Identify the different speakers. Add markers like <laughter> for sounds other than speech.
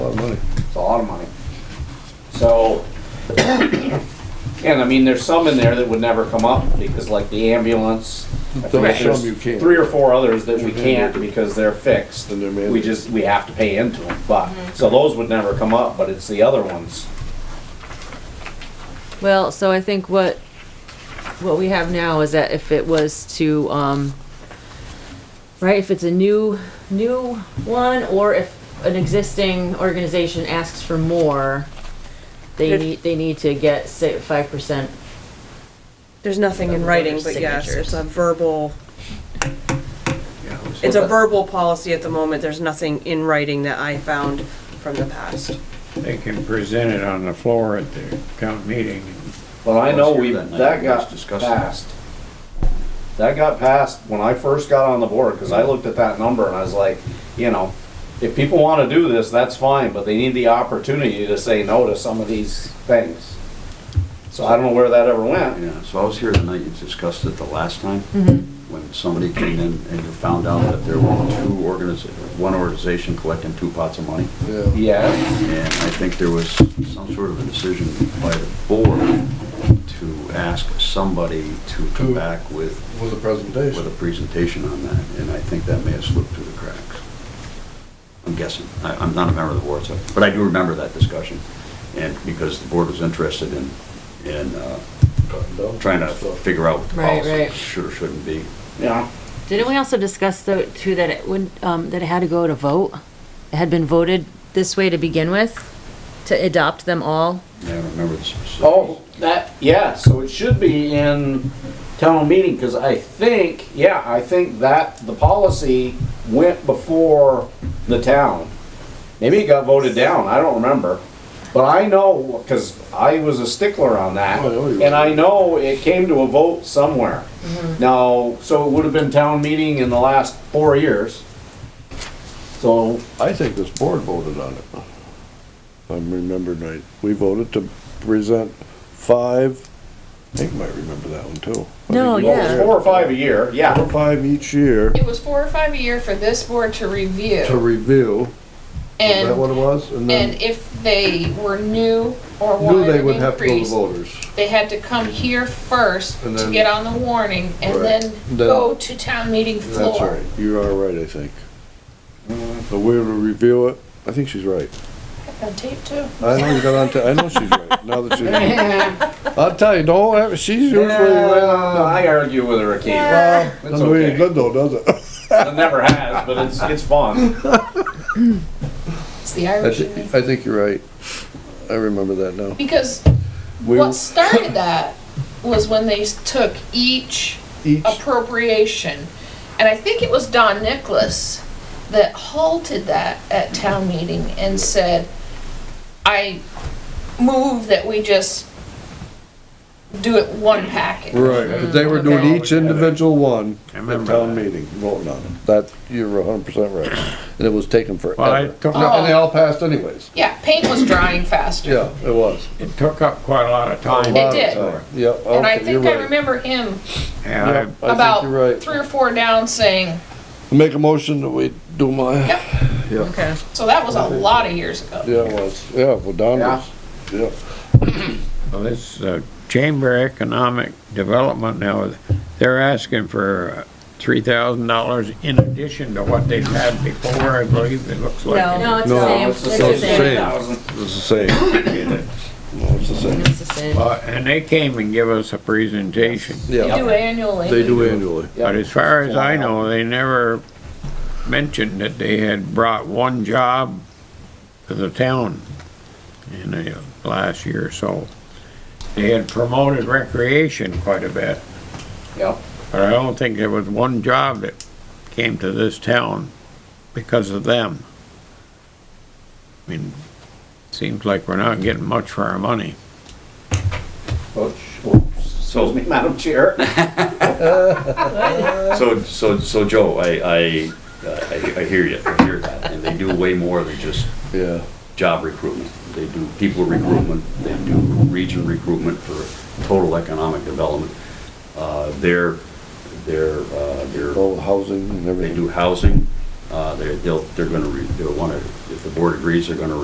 Speaker 1: So, and I mean, there's some in there that would never come up because like the ambulance. I
Speaker 2: There are
Speaker 1: forget, there's
Speaker 2: some you can't. Mm-hmm.
Speaker 1: Three or four others that we can't because they're fixed.
Speaker 2: And they're
Speaker 1: We
Speaker 2: mandated.
Speaker 1: just, we have to pay into them, but, so those would never come up, but it's the other ones.
Speaker 3: Well, so I think what, what we have now is that if it was to, um, right, if it's a new, new one, or if an existing organization asks for more, they
Speaker 4: It-
Speaker 3: need, they need to get say five percent.
Speaker 4: There's nothing in
Speaker 3: Those are
Speaker 4: writing, but yes,
Speaker 3: signatures.
Speaker 4: it's a verbal, it's a verbal policy at the moment. There's nothing in writing that I found from the past.
Speaker 5: They can present it on the floor at the count meeting.
Speaker 1: But I know
Speaker 6: Let's hear
Speaker 1: we,
Speaker 6: that night.
Speaker 1: that got
Speaker 6: Let's discuss it.
Speaker 1: passed. That got passed when I first got on the board, cause I looked at that number and I was like, you know, if people wanna do this, that's fine, but they need the opportunity to say no to some of these things. So I don't know where that ever went.
Speaker 6: Yeah, so I was here the night you discussed it the last time, when somebody came in and you found out that there were two organiz, one organization collecting two pots of money.
Speaker 2: Yeah.
Speaker 1: Yeah,
Speaker 6: And I think there was some sort of a decision by the board to ask somebody to come
Speaker 2: To-
Speaker 6: back with,
Speaker 2: With a
Speaker 6: with
Speaker 2: presentation.
Speaker 6: a presentation on that, and I think that may have slipped through the cracks. I'm guessing. I, I'm not a member of the board, so, but I do remember that discussion. And because the board was interested in, in, uh, trying to figure out what the
Speaker 3: Right, right.
Speaker 6: policy should or shouldn't be.
Speaker 1: yeah.
Speaker 3: Didn't we also discuss though, too, that it would, um, that it had to go to vote? It had been voted this way to begin with, to adopt them all?
Speaker 6: I don't remember the specifics.
Speaker 1: Oh, that, yeah, so it should be in town meeting, cause I think, yeah, I think that the policy went before the town. Maybe it got voted down, I don't remember, but I know, cause I was a stickler on that,
Speaker 2: Oh, I know you were.
Speaker 1: and I know it came to a vote somewhere. Now, so it would have been town meeting in the last four years. So,
Speaker 2: I think this board voted on it. If I'm remembering right. We voted to present five, I think you might remember that one too. I
Speaker 3: No,
Speaker 2: think it
Speaker 1: well, it was
Speaker 2: was
Speaker 3: yeah.
Speaker 1: four or five a year,
Speaker 2: Four
Speaker 1: yeah,
Speaker 2: or five each year
Speaker 7: It was four or five a year for this board to
Speaker 2: to
Speaker 7: review.
Speaker 2: review. Is that
Speaker 7: And,
Speaker 2: what it was? And then
Speaker 7: and if they were new or
Speaker 2: knew
Speaker 7: wanted
Speaker 2: they
Speaker 7: an
Speaker 2: would have to go to
Speaker 7: increase,
Speaker 2: voters.
Speaker 7: they had to come here first
Speaker 2: And
Speaker 7: to
Speaker 2: then-
Speaker 7: get on the warning and
Speaker 2: Right.
Speaker 7: then
Speaker 2: Then-
Speaker 7: go to town meeting
Speaker 2: That's
Speaker 7: floor.
Speaker 2: right. You are right, I think. But we were to review it. I think she's right.
Speaker 7: On tape too.
Speaker 2: I know you got on to, I know she's right. Now that <laughs> she's, I'll tell you, don't, have- she's usually right on.
Speaker 1: Yeah, I argue with her occasionally.
Speaker 2: Well,
Speaker 1: It's
Speaker 2: doesn't really
Speaker 1: okay.
Speaker 2: good though, does it?
Speaker 1: It never has, but it's, it's fun.
Speaker 7: It's the
Speaker 2: I
Speaker 7: Irish in me.
Speaker 2: think, I think you're right. I remember that now.
Speaker 7: Because
Speaker 2: We
Speaker 7: what started that was when they s- took each
Speaker 2: each,
Speaker 7: appropriation. And I think it was Don Nicholas that halted that at town meeting and said, I move that we just do it one package.
Speaker 2: right, but they were doing each individual one
Speaker 5: I
Speaker 2: at
Speaker 5: remember
Speaker 2: town
Speaker 5: that.
Speaker 2: meeting, voting on it. That, you're hundred percent right. And it was taken
Speaker 5: Well, I
Speaker 2: forever.
Speaker 5: took,
Speaker 7: Oh.
Speaker 2: And they all passed anyways.
Speaker 7: Yeah, paint was drying faster.
Speaker 2: Yeah, it was.
Speaker 5: it took up quite a lot of
Speaker 2: A
Speaker 5: time.
Speaker 2: lot of
Speaker 7: did.
Speaker 2: time. Yeah,
Speaker 7: And I
Speaker 2: okay, you're
Speaker 7: think I
Speaker 2: right.
Speaker 7: remember him
Speaker 5: And
Speaker 2: Yeah, I
Speaker 5: I,
Speaker 2: think
Speaker 7: about
Speaker 2: you're right.
Speaker 7: three or four down saying,
Speaker 2: Make a motion that we do my, yeah,
Speaker 7: Yep.
Speaker 3: Okay.
Speaker 7: so that was a lot of years ago.
Speaker 2: it was, yeah, well, Don was, yeah.
Speaker 5: well, this uh, Chamber of Economic Development now, they're asking for three thousand dollars in addition to what they've had before, I believe it looks like.
Speaker 3: No, no, it's
Speaker 2: No,
Speaker 3: the same.
Speaker 2: it's the same.
Speaker 1: Thousand.
Speaker 2: It's the same. <coughs> No, it's the same.
Speaker 3: It's the same.
Speaker 5: Uh, And they came and give us a presentation,
Speaker 7: They
Speaker 2: Yeah,
Speaker 7: do annually.
Speaker 2: they do annually.
Speaker 5: but as far as I know, they never mentioned that they had brought one job to the town in the last year or so. They had promoted recreation quite a bit.
Speaker 1: Yeah.
Speaker 5: But I don't think there was one job that came to this town because of them. I mean, seems like we're not getting much for our money.
Speaker 6: Oh,
Speaker 1: Oops, Excuse me, Madam Chair.
Speaker 6: So, so, so Joe, I, I, I I hear you, I hear that, and they do way more than just
Speaker 2: Yeah,
Speaker 6: job recruitment. They do people recruitment, they do region recruitment for total economic development. Uh, Their, their, uh, their
Speaker 2: all the housing and
Speaker 6: They
Speaker 2: everything.
Speaker 6: do housing, uh, they're, they'll, they're gonna, re- they'll wanna, if the board agrees, they're gonna